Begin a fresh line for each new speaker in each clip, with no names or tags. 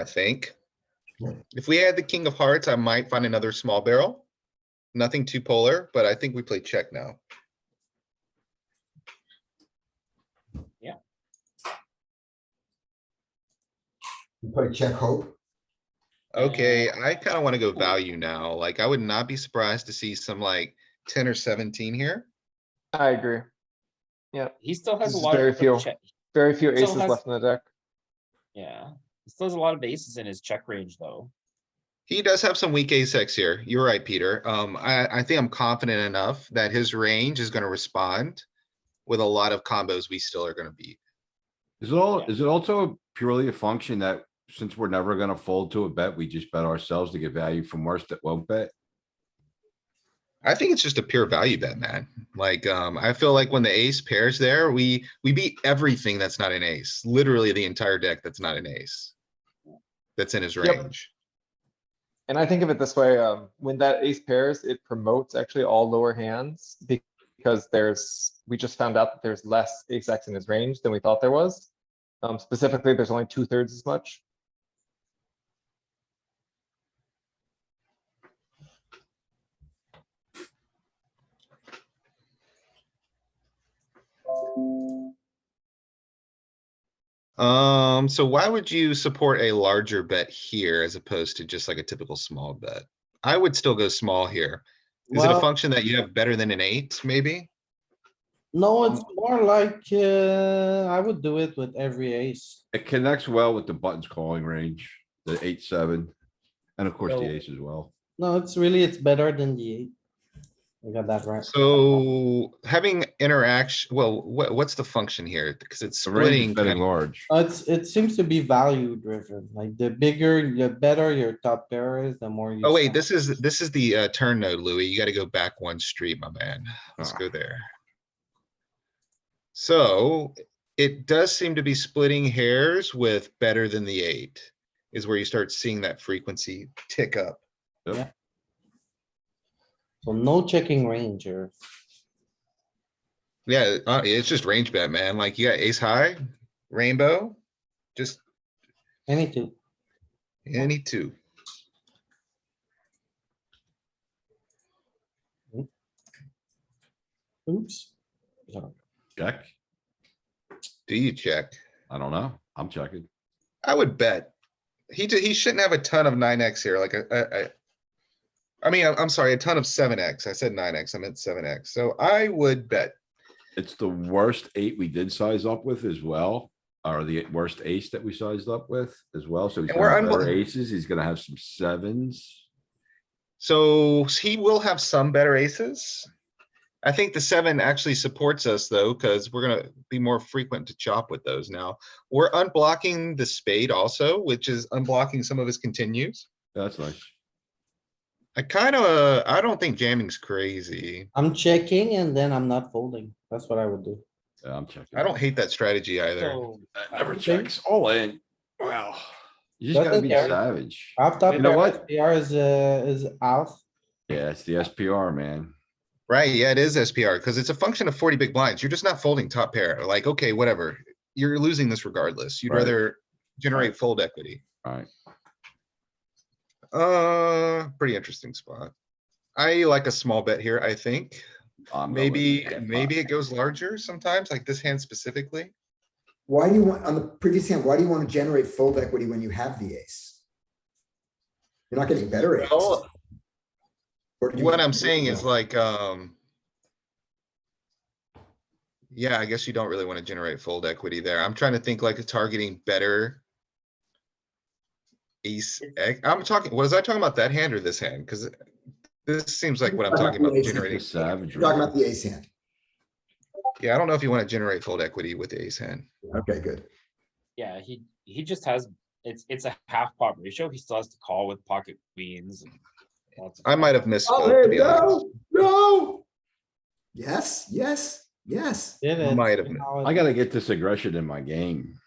I think.
Sure.
If we had the king of hearts, I might find another small barrel. Nothing too polar, but I think we play check now.
You play check hope,
Okay, I kinda wanna go value now. Like, I would not be surprised to see some like ten or seventeen here.
I agree.
He still has
This
a
is
lot
very
of
few.
check.
Very few
Still
aces
has-
left in the deck.
Yeah, he still has a lot of aces in his check range though.
He does have some weak ace X here. You're right, Peter. Um, I, I think I'm confident enough that his range is gonna respond with a lot of combos we still are gonna beat.
Is it all,
Yeah.
is it also purely a function that since we're never gonna fold to a bet, we just bet ourselves to get value from worse that won't bet?
I think it's just a pure value bet, man. Like, um, I feel like when the ace pairs there, we, we beat everything that's not an ace, literally the entire deck that's not an ace. That's in his
Yep.
range.
And I think of it this way, um, when that ace pairs, it promotes actually all lower hands be- because there's, we just found out that there's less ace X in his range than we thought there was. Um, specifically, there's only two thirds as much.
Um, so why would you support a larger bet here as opposed to just like a typical small bet? I would still go small here. Is it a
Well-
function that you have better than an eight, maybe?
No, it's more like, uh, I would do it with every ace.
It connects well with the buttons calling range, the eight, seven, and of course the ace as well.
No, it's really, it's better than the eight. You got that right.
So having interaction, well, what, what's the function here? Because it's
The range
splitting.
is betting
kind-
large.
Uh, It's, it seems to be value driven, like the bigger, the better your top pair is, the more. you
Oh wait,
stack.
this is, this is the uh, turn node, Louis. You gotta go back one street, my man. Let's
Ah.
go there. So it does seem to be splitting hairs with better than the eight is where you start seeing that frequency tick up.
So no checking range here.
Yeah, uh, it's just range bet, man. Like you got ace high, rainbow, just
any two.
any two.
Oops. No.
Check?
Do you check?
I don't know. I'm checking.
I would bet. He, d- he shouldn't have a ton of nine X here, like a, a, a- I mean, I'm, I'm sorry, a ton of seven X. I said nine X, I meant seven X. So I would bet.
It's the worst eight we did size up with as well, or the worst ace that we sized up with as well. So he's
And we're
gonna have
unbel-
better aces. He's gonna have some sevens.
So s- he will have some better aces. I think the seven actually supports us though, because we're gonna be more frequent to chop with those now. We're unblocking the spade also, which is unblocking some of his continues.
That's nice.
I kind of, I don't think jamming's crazy.
I'm checking and then I'm not folding. That's what I would do.
Yeah, I'm checking.
I don't hate that strategy either.
So
That Never
Okay.
checks Oh, all in. Wow. You just gotta
Doesn't
be
care.
savage.
Half top.
You know
pair
what?
SPR is, uh, is out.
Yeah, it's the SPR, man.
Right, yeah, it is SPR, because it's a function of forty big blinds. You're just not folding top pair, like, okay, whatever. You're losing this regardless. You'd
Right.
rather generate fold equity.
Alright,
Uh, pretty interesting spot. I like a small bet here, I think.
I'm. going with
Maybe,
that.
maybe it goes larger sometimes, like this hand specifically.
why do you want, on the previous hand, why do you want to generate fold equity when you have the ace? You're not getting better aces.
Well,
Or do you-
What I'm saying is like, um. Yeah, I guess you don't really wanna generate fold equity there. I'm trying to think like a targeting better. Ace, X- I'm talking, was I talking about that hand or this hand? Cuz this seems like what I'm talking about
Ace is
generating.
It's savage.
You're Talking about the ace hand.
Yeah, I don't know if you wanna generate fold equity with the ace hand.
Okay, good.
yeah, he he just has it's it's a half pot ratio. He still has to call with pocket queens. and lots of-
I might have missed.
Oh, there you go. No. Yes, yes, yes.
Did it.
Might have
You
been.
know,
I gotta get this aggression in my game.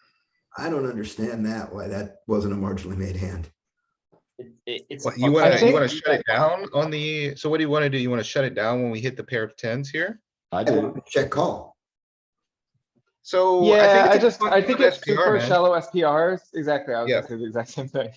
I don't understand that, why that wasn't a marginally made hand.
It- it- It's. a
What, you
function-
wanna,
think-
you wanna shut it down on the, so what do you wanna do? You wanna shut it down when we hit the pair of tens here?
I
I
did.
want to Check call.
So.
Yeah, I
it's a
just, I
function
think
of
it's
SPR,
super
man.
shallow SPRs. Exactly, I was
Yeah.
gonna say the exact same thing.